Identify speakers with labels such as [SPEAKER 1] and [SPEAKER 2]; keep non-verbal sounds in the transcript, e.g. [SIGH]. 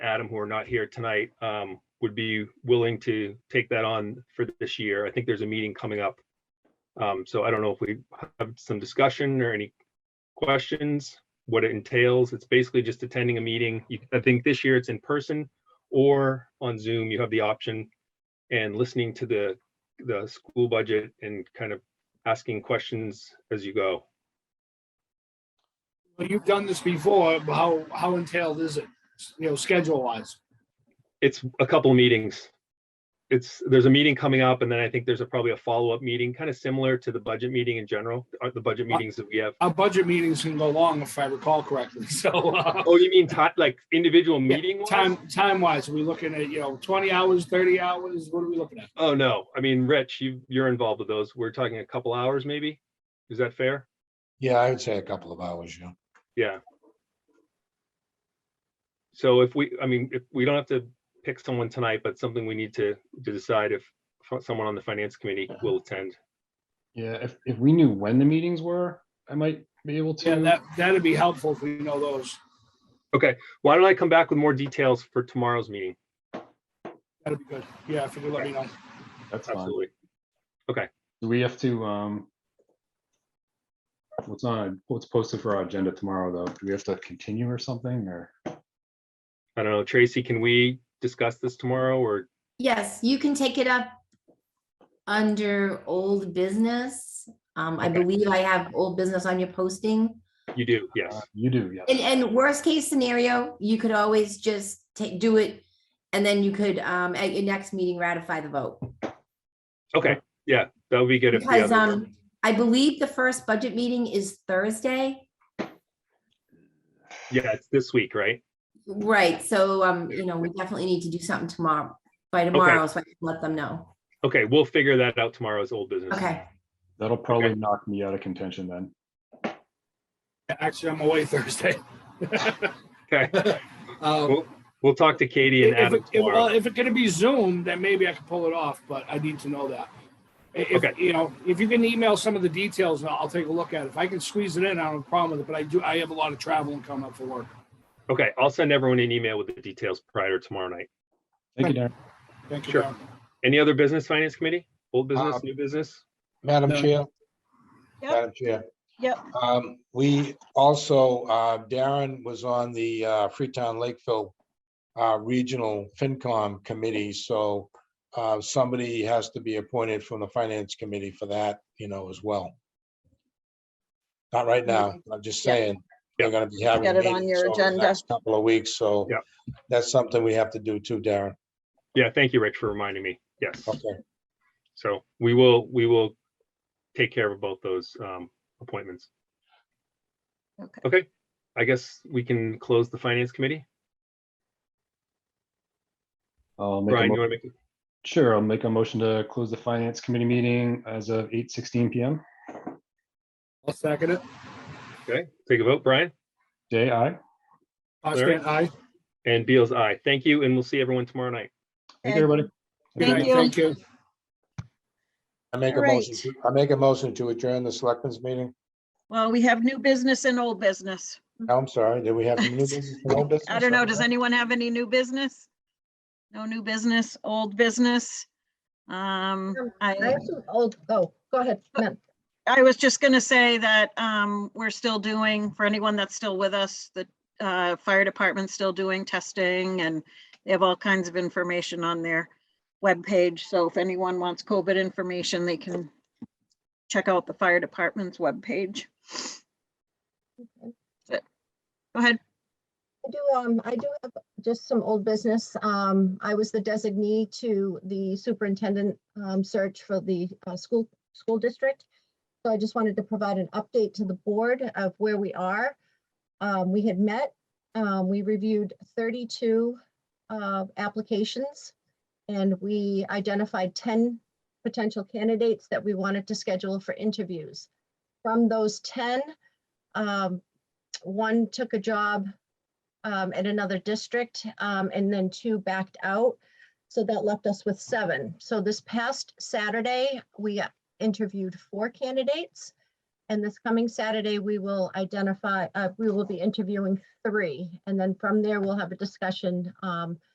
[SPEAKER 1] Adam, who are not here tonight, um, would be willing to take that on for this year. I think there's a meeting coming up. Um, so I don't know if we have some discussion or any questions, what it entails. It's basically just attending a meeting. You- I think this year it's in person or on Zoom. You have the option and listening to the, the school budget and kind of asking questions as you go.
[SPEAKER 2] Well, You've done this before. but How, how entailed is it, you know, schedule wise?
[SPEAKER 1] it's a couple meetings. It's, there's a meeting coming up and then I think there's a, probably a follow-up meeting, kind of similar to the budget meeting in general, uh, the budget meetings that we have.
[SPEAKER 2] Our budget meetings can go long if I recall correctly. [LAUGHS] So uh,
[SPEAKER 1] Oh, you mean ti- like individual
[SPEAKER 2] Yeah,
[SPEAKER 1] meeting wise?
[SPEAKER 2] time, time wise, are we looking at, you know, 20 hours, 30 hours? What are we looking at?
[SPEAKER 1] Oh, no. I mean, Rich, you, you're involved with those. We're talking a couple hours maybe? Is that fair?
[SPEAKER 3] Yeah, I would say a couple of hours, yeah.
[SPEAKER 1] Yeah. So if we, I mean, if we don't have to pick someone tonight, but something we need to, to decide if someone on the finance committee will attend.
[SPEAKER 4] Yeah, if, if we knew when the meetings were, I might be able
[SPEAKER 2] Yeah,
[SPEAKER 4] to.
[SPEAKER 2] that, that'd be helpful if we know those.
[SPEAKER 1] Okay, why don't I come back with more details for tomorrow's meeting?
[SPEAKER 2] That'd be good. Yeah, if you could let me know.
[SPEAKER 4] That's fine.
[SPEAKER 1] Absolutely.
[SPEAKER 4] Do we have to, um, what's on, what's posted for our agenda tomorrow, though? Do we have to continue or something, or?
[SPEAKER 1] I don't know, Tracy, can we discuss this tomorrow or,
[SPEAKER 5] Yes, you can take it up under old business. Um, I
[SPEAKER 1] Okay.
[SPEAKER 5] believe I have old business on your posting.
[SPEAKER 1] you do, yes,
[SPEAKER 4] Uh, You do, yes.
[SPEAKER 5] And, and worst case scenario, you could always just take, do it. And then you could, um, at your next meeting, ratify the vote.
[SPEAKER 1] okay, yeah, that would be good if the
[SPEAKER 5] Because,
[SPEAKER 1] other,
[SPEAKER 5] um, I believe the first budget meeting is Thursday.
[SPEAKER 1] yeah, it's this week, right?
[SPEAKER 5] Right, so, um, you know, we definitely need to do something tomorrow, by tomorrow, so I can let them know.
[SPEAKER 1] Okay, we'll figure that out tomorrow as old business.
[SPEAKER 5] Okay,
[SPEAKER 4] That'll probably knock me out of contention then.
[SPEAKER 2] Actually, I'm away [LAUGHS] Thursday.
[SPEAKER 1] Okay,
[SPEAKER 2] Um,
[SPEAKER 1] Cool. we'll talk to Katie and
[SPEAKER 2] If,
[SPEAKER 1] Adam
[SPEAKER 2] it- if, well,
[SPEAKER 1] tomorrow.
[SPEAKER 2] if it could be Zoom, then maybe I could pull it off, but I need to know that. I- If,
[SPEAKER 1] Okay.
[SPEAKER 2] you know, if you can email some of the details, I'll, I'll take a look at it. If I can squeeze it in, I don't have a problem with it, but I do, I have a lot of traveling coming up for work.
[SPEAKER 1] Okay, I'll send everyone an email with the details prior to tomorrow night.
[SPEAKER 4] Thank you, Darren.
[SPEAKER 2] Thank you.
[SPEAKER 1] Sure.
[SPEAKER 2] Darren.
[SPEAKER 1] Any other business, finance committee? Old business,
[SPEAKER 3] Um,
[SPEAKER 1] new business?
[SPEAKER 3] Madam
[SPEAKER 2] No.
[SPEAKER 3] Chair?
[SPEAKER 6] Yep.
[SPEAKER 3] Madam Chair?
[SPEAKER 6] Yep.
[SPEAKER 3] Um, we also, uh, Darren was on the, uh, Freetown Lakeville, uh, Regional FinCom Committee, so, uh, somebody has to be appointed from the Finance Committee for that, you know, as well. Not right now, I'm just
[SPEAKER 6] Yep.
[SPEAKER 3] saying, they're gonna be having.
[SPEAKER 6] Get
[SPEAKER 3] a
[SPEAKER 6] Mm-hmm. it on
[SPEAKER 3] meeting,
[SPEAKER 6] your
[SPEAKER 3] so in the
[SPEAKER 6] agenda.
[SPEAKER 3] next Couple of weeks, so.
[SPEAKER 1] Yep.
[SPEAKER 3] That's something we have to do too, Darren.
[SPEAKER 1] Yeah, thank you, Rich, for reminding me. Yes,
[SPEAKER 3] Okay,
[SPEAKER 1] so we will, we will take care of both those um, appointments.
[SPEAKER 6] Okay.
[SPEAKER 1] Okay, I guess we can close the finance committee.
[SPEAKER 4] I'll make a
[SPEAKER 1] Brian,
[SPEAKER 4] mo-
[SPEAKER 1] you want to make, a-
[SPEAKER 4] Sure, I'll make a motion to close the finance committee meeting as of eight sixteen PM.
[SPEAKER 2] I'll second it.
[SPEAKER 1] okay, take a vote, Brian?
[SPEAKER 4] Day, aye.
[SPEAKER 2] Austin, aye.
[SPEAKER 1] And Beal's eye. Thank you, and we'll see everyone tomorrow night.
[SPEAKER 4] Thank
[SPEAKER 6] Okay.
[SPEAKER 4] you, everybody.
[SPEAKER 2] Good
[SPEAKER 6] Thank
[SPEAKER 2] night.
[SPEAKER 6] you.
[SPEAKER 2] Thank you.
[SPEAKER 3] I make a
[SPEAKER 6] All right.
[SPEAKER 3] motion, to- I make a motion to adjourn the Selectmen's meeting.
[SPEAKER 6] Well, we have new business and old business.
[SPEAKER 3] Oh, I'm sorry, do we have new business? and old
[SPEAKER 6] Mm. [LAUGHS] I
[SPEAKER 3] business
[SPEAKER 6] don't know,
[SPEAKER 3] on
[SPEAKER 6] does
[SPEAKER 3] that?
[SPEAKER 6] anyone have any new business? No new business, old business? Um,
[SPEAKER 7] Um, I
[SPEAKER 6] I,
[SPEAKER 7] have some old, oh, go ahead, Matt.
[SPEAKER 6] I was just gonna say that, um, we're still doing, for anyone that's still with us, the, uh, fire department's still doing testing and they have all kinds of information on their webpage. So if anyone wants COVID information, they can check out the fire department's webpage. That's it. Go ahead.
[SPEAKER 7] I do, um, I do have just some old business. Um, I was the designee to the superintendent, um, search for the, uh, school, school district. So I just wanted to provide an update to the board of where we are. Um, we had met, um, we reviewed thirty-two, uh, applications. And we identified ten potential candidates that we wanted to schedule for interviews. From those ten, um, one took a job um, in another district, um, and then two backed out. So that left us with seven. So this past Saturday, we interviewed four candidates. And this coming Saturday, we will identify, uh, we will be interviewing three. And then from there, we'll have a discussion, um,